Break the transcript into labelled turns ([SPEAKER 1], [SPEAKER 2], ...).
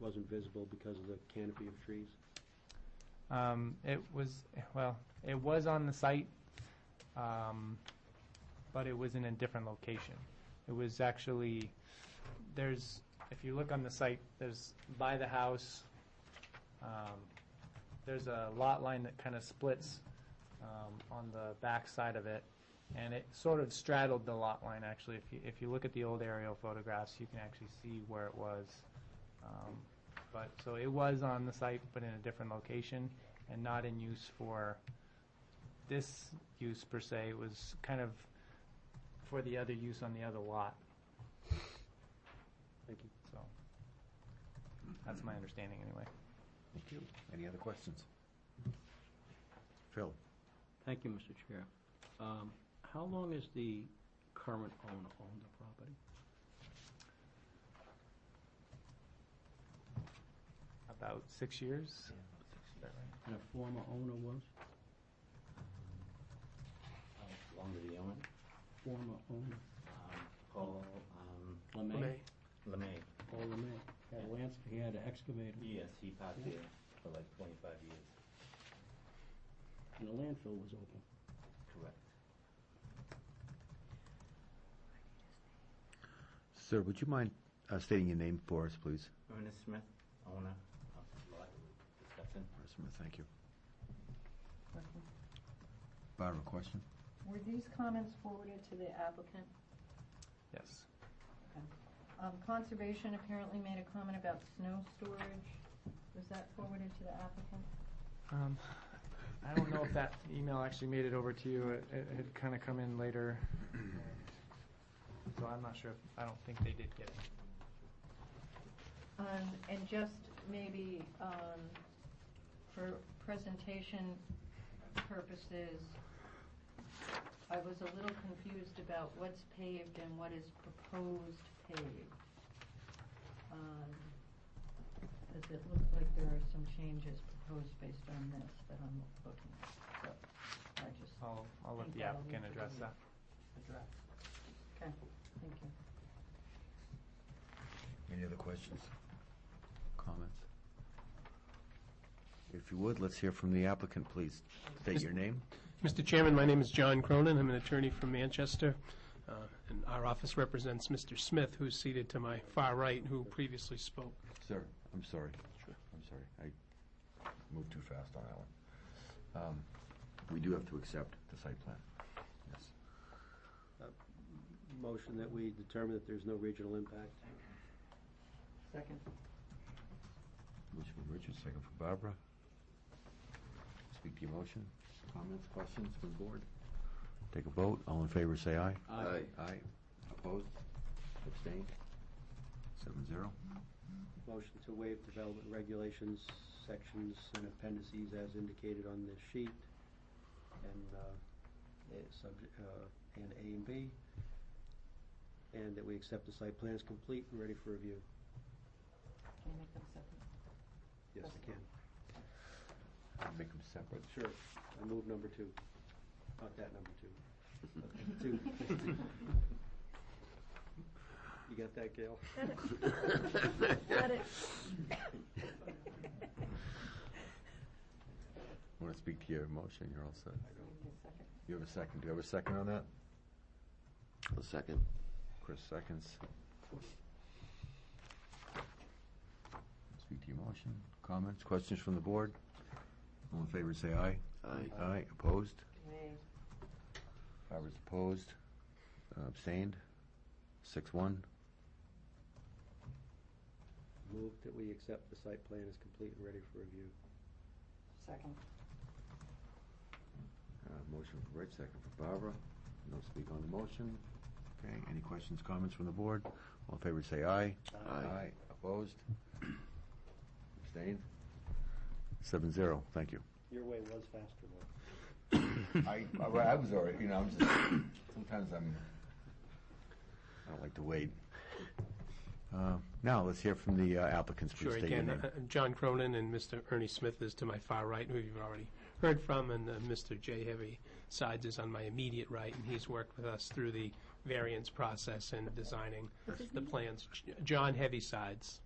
[SPEAKER 1] wasn't visible because of the canopy of trees?
[SPEAKER 2] Um, it was, well, it was on the site, um, but it was in a different location. It was actually, there's, if you look on the site, there's by the house, um, there's a lot line that kind of splits, um, on the back side of it. And it sort of straddled the lot line, actually. If you, if you look at the old aerial photographs, you can actually see where it was. Um, but, so it was on the site, but in a different location, and not in use for this use per se, it was kind of for the other use on the other lot,
[SPEAKER 1] Thank you.
[SPEAKER 2] so. That's my understanding, anyway.
[SPEAKER 3] Thank you. Any other questions? Phil?
[SPEAKER 4] Thank you, Mr. Chair. Um, How long has the current owner owned the property?
[SPEAKER 2] About six years? Is that right?
[SPEAKER 4] And a former owner was?
[SPEAKER 5] Longer the owner,
[SPEAKER 4] Former owner,
[SPEAKER 5] um, Paul, um, LeMay.
[SPEAKER 4] Paul Oh, LeMay. Had a lands, he had an excavator,
[SPEAKER 5] Yes, he parked there for like twenty-five years.
[SPEAKER 4] and the landfill was open.
[SPEAKER 5] Correct.
[SPEAKER 3] Sir, would you mind uh, stating your name for us, please?
[SPEAKER 5] Ernest Smith, owner of the lot we're discussing.
[SPEAKER 3] Mr. Smith, thank you. Barbara, question?
[SPEAKER 6] Were these comments forwarded to the applicant?
[SPEAKER 2] Yes.
[SPEAKER 6] Um, Conservation apparently made a comment about snow storage. Was that forwarded to the applicant?
[SPEAKER 2] Um, I don't know if that email actually made it over to you. It, it had kind of come in later. So I'm not sure. if- I don't think they did get it.
[SPEAKER 6] Um, And just maybe um, for presentation purposes, I was a little confused about what's paved and what is proposed paved. Because it looks like there are some changes proposed based on this that I'm looking at. So I just
[SPEAKER 2] I'll, I'll let the
[SPEAKER 6] Think I'll
[SPEAKER 2] applicant
[SPEAKER 6] leave it
[SPEAKER 2] address
[SPEAKER 6] alone.
[SPEAKER 2] that.
[SPEAKER 6] addressed. Okay, thank you.
[SPEAKER 3] Any other questions? Comments? If you would, let's hear from the applicant, please. State your name.
[SPEAKER 7] Mr. Chairman, my name is John Cronin. I'm an attorney from Manchester, uh, and our office represents Mr. Smith, who's seated to my far right, who previously spoke.
[SPEAKER 3] Sir, I'm sorry. I'm sorry. I moved too fast on that one. Um, We do have to accept the site plan. Yes.
[SPEAKER 1] Motion that we determine that there's no regional impact.
[SPEAKER 6] Second.
[SPEAKER 3] Motion from Richard, second from Barbara. Speak to your motion. Comments, questions from the board? Take a vote. All in favor, say aye.
[SPEAKER 4] Aye.
[SPEAKER 3] Aye. Opposed? Abstained? Seven zero.
[SPEAKER 1] Motion to waive development regulations, sections and appendices as indicated on this sheet, and, uh, eh, subject, uh, and A and B, and that we accept the site plans complete and ready for review.
[SPEAKER 6] Can you make them second?
[SPEAKER 1] Yes, I can.
[SPEAKER 3] Make them separate.
[SPEAKER 1] Sure. I move number two, not that number two. Two. You got that, Gail?
[SPEAKER 6] Got it.
[SPEAKER 3] Want to speak to your motion? You're all set.
[SPEAKER 6] Second.
[SPEAKER 3] You have a second. Do you have a second on that? A second. Chris seconds. Speak to your motion. Comments, questions from the board? All in favor, say aye. Aye. Aye. Opposed?
[SPEAKER 6] Nay.
[SPEAKER 3] Barbara's opposed, Uh, abstained, six one.
[SPEAKER 1] Move that we accept the site plan as complete and ready for review.
[SPEAKER 6] Second.
[SPEAKER 3] Uh, Motion for Rich, second for Barbara. No speak on the motion. Okay, any questions, comments from the board? All in favor, say aye. Aye. Opposed? Abstained? Seven zero, thank you.
[SPEAKER 1] Your way was faster, though.
[SPEAKER 3] I, I well, I was already, you know, I'm just, sometimes I'm, I don't like to wait. Uh, Now, let's hear from the uh, applicants, please
[SPEAKER 7] Sure,
[SPEAKER 3] state your
[SPEAKER 7] again,
[SPEAKER 3] name.
[SPEAKER 7] uh, John Cronin and Mr. Ernie Smith is to my far right, who you've already heard from, and uh, Mr. Jay Heavy Sides is on my immediate right, and he's worked with us through the variance process and designing the plans. J- John Heavy Sides.